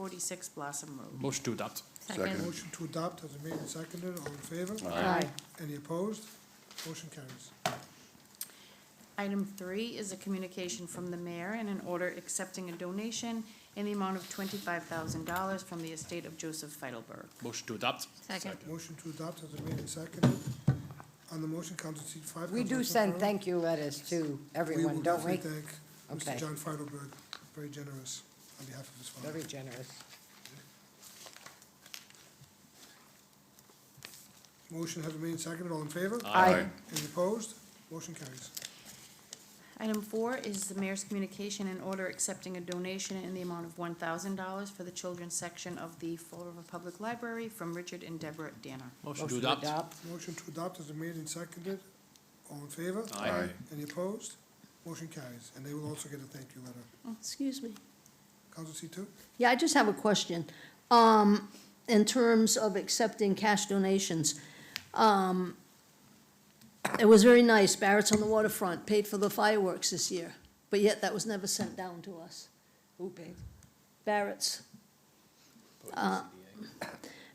46 Blossom Road. Motion to adopt. Second. Motion to adopt has been made and seconded. All in favor? Aye. Any opposed? Motion carries. Item three is a communication from the mayor and an order accepting a donation in the amount of $25,000 from the estate of Joseph Feidelberg. Motion to adopt. Second. Motion to adopt has been made and seconded. On the motion, Council seat five. We Councilman do send Zafarov. thank you letters to everyone, don't We we? will definitely thank Mr. Okay. John Feidelberg, very generous on behalf of his Very family. generous. Motion has been made and seconded. All in favor? Aye. Any opposed? Motion carries. Item four is the mayor's communication and order accepting a donation in the amount of $1,000 for the children's section of the Fall River Public Library from Richard and Deborah Danner. Motion to adopt. Motion to adopt has been made and seconded. All in favor? Aye. Any opposed? Motion carries. And they will also get a thank you letter. Excuse me. Council seat two? Yeah, I just have a question. Um, in terms of accepting cash donations, um, it was very nice. Barrett's on the waterfront paid for the fireworks this year, but yet that was never sent down to us. Who paid? Barrett's. Uh,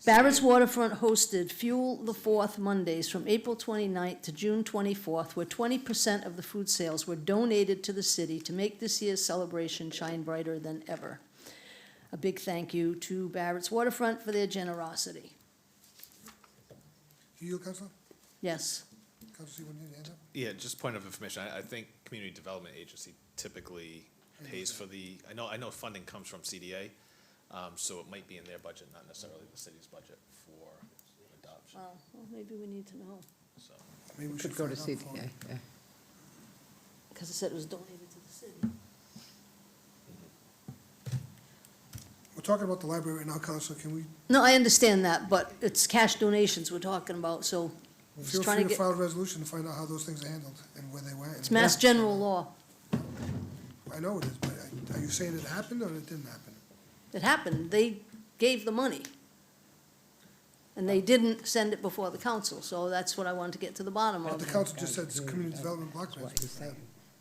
Barrett's Waterfront hosted Fuel the Fourth Mondays from April 29th to June twenty-fourth, where twenty percent of the food sales were donated to the city to make this year's celebration shine brighter than ever. A big thank you to Barrett's Waterfront for their generosity. You, Council? Yes, Council seat one, you had your hand up? Yeah, just point of information, I, I think Community Development Agency typically pays for the, I know, I know funding comes from CDA, um, so it might be in their budget, not necessarily the city's budget for adoption, well, well, maybe we need to know, so. Maybe we should Could go to find out. for- CDA, yeah. because it said it was donated to the city. We're talking about the library right now, Council. Can we No, I understand that, but it's cash donations we're talking about, so just Feel trying free to get- file a resolution to find out how those things are handled and where they went. it's mass general law. I know it is, but I- are you saying it happened or it didn't happen? It happened, they gave the money. And they didn't send it before the council, so that's what I wanted to get to the bottom The of. council just said it's community development block That's what he's grants.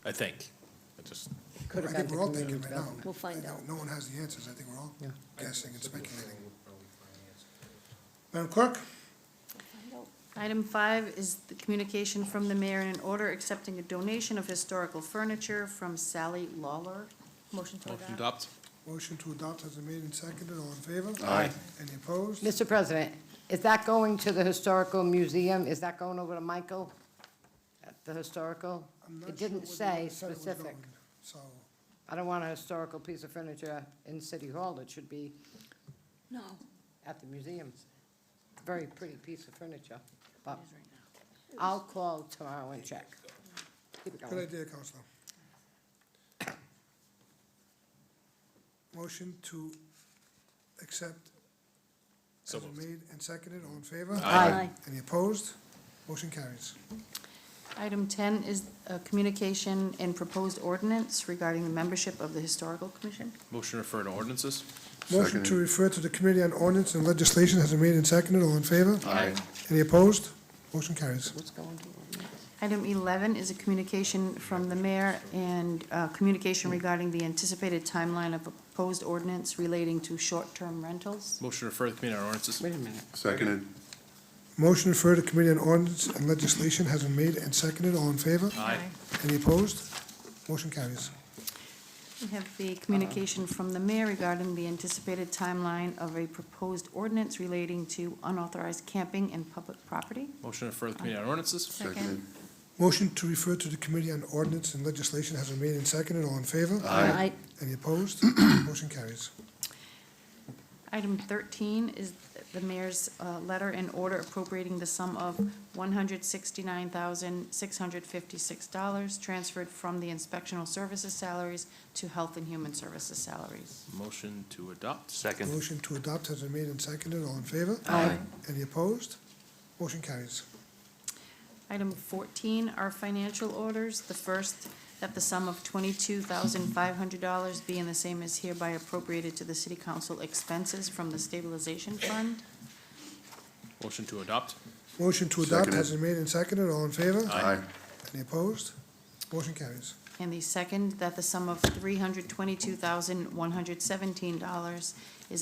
I saying. I think, I just, Could have gone think to we're all community thinking right now. development. We'll find I know out. No one has the answers. I think we're all Yeah. guessing and speculating. Madam Clerk, Item five is the communication from the mayor and an order accepting a donation of historical furniture from Sally Lawler. Motion to Motion to adopt. adopt. motion to adopt has been made and seconded. All in favor? Aye. Any opposed? Mr. President, is that going to the Historical Museum? Is that going over to Michael? At The Historical? I'm not It sure where they didn't say said it was specific. going, So, I don't want a historical piece of furniture in City Hall. It should be No, at the museum. Very pretty piece of furniture, but I'll call tomorrow and check. Keep it good going. idea, Counselor. Motion to accept So has been moved. made and seconded. All in favor? Aye. Aye. Any opposed? Motion carries. Item ten is a communication and proposed ordinance regarding the membership of the Historical Commission. Motion to refer to ordinances. Motion to refer to the Committee on Ordinance and Legislation has been made and seconded. All in favor? Aye. Any opposed? Motion carries. What's going on? Item 11 is a communication from the mayor and uh, communication regarding the anticipated timeline of a proposed ordinance relating to short-term rentals. Motion to refer to committee on ordinances. Wait a minute. Seconded. Motion to refer to Committee on Ordinance and Legislation has been made and seconded. All in favor? Aye. Any opposed? Motion carries. We have the communication from the mayor regarding the anticipated timeline of a proposed ordinance relating to unauthorized camping in public property. Motion to refer to committee on ordinances. Seconded. Motion to refer to the Committee on Ordinance and Legislation has been made and seconded. All in favor? I, Any opposed? Motion carries. Item 13 is the mayor's uh, letter and order appropriating the sum of $169,656 transferred from the inspectional services salaries to health and human services salaries. Motion to adopt. Second. Motion to adopt has been made and seconded. All in favor? Aye. Any opposed? Motion carries. Item 14 are financial orders. The first, that the sum of $22,500 be and the same as hereby appropriated to the city council expenses from the stabilization fund. Motion to adopt. Motion to adopt Seconded. has been made and seconded. All in favor? Aye. Any opposed? Motion carries. And the second, that the sum of three hundred twenty-two thousand, one hundred seventeen dollars is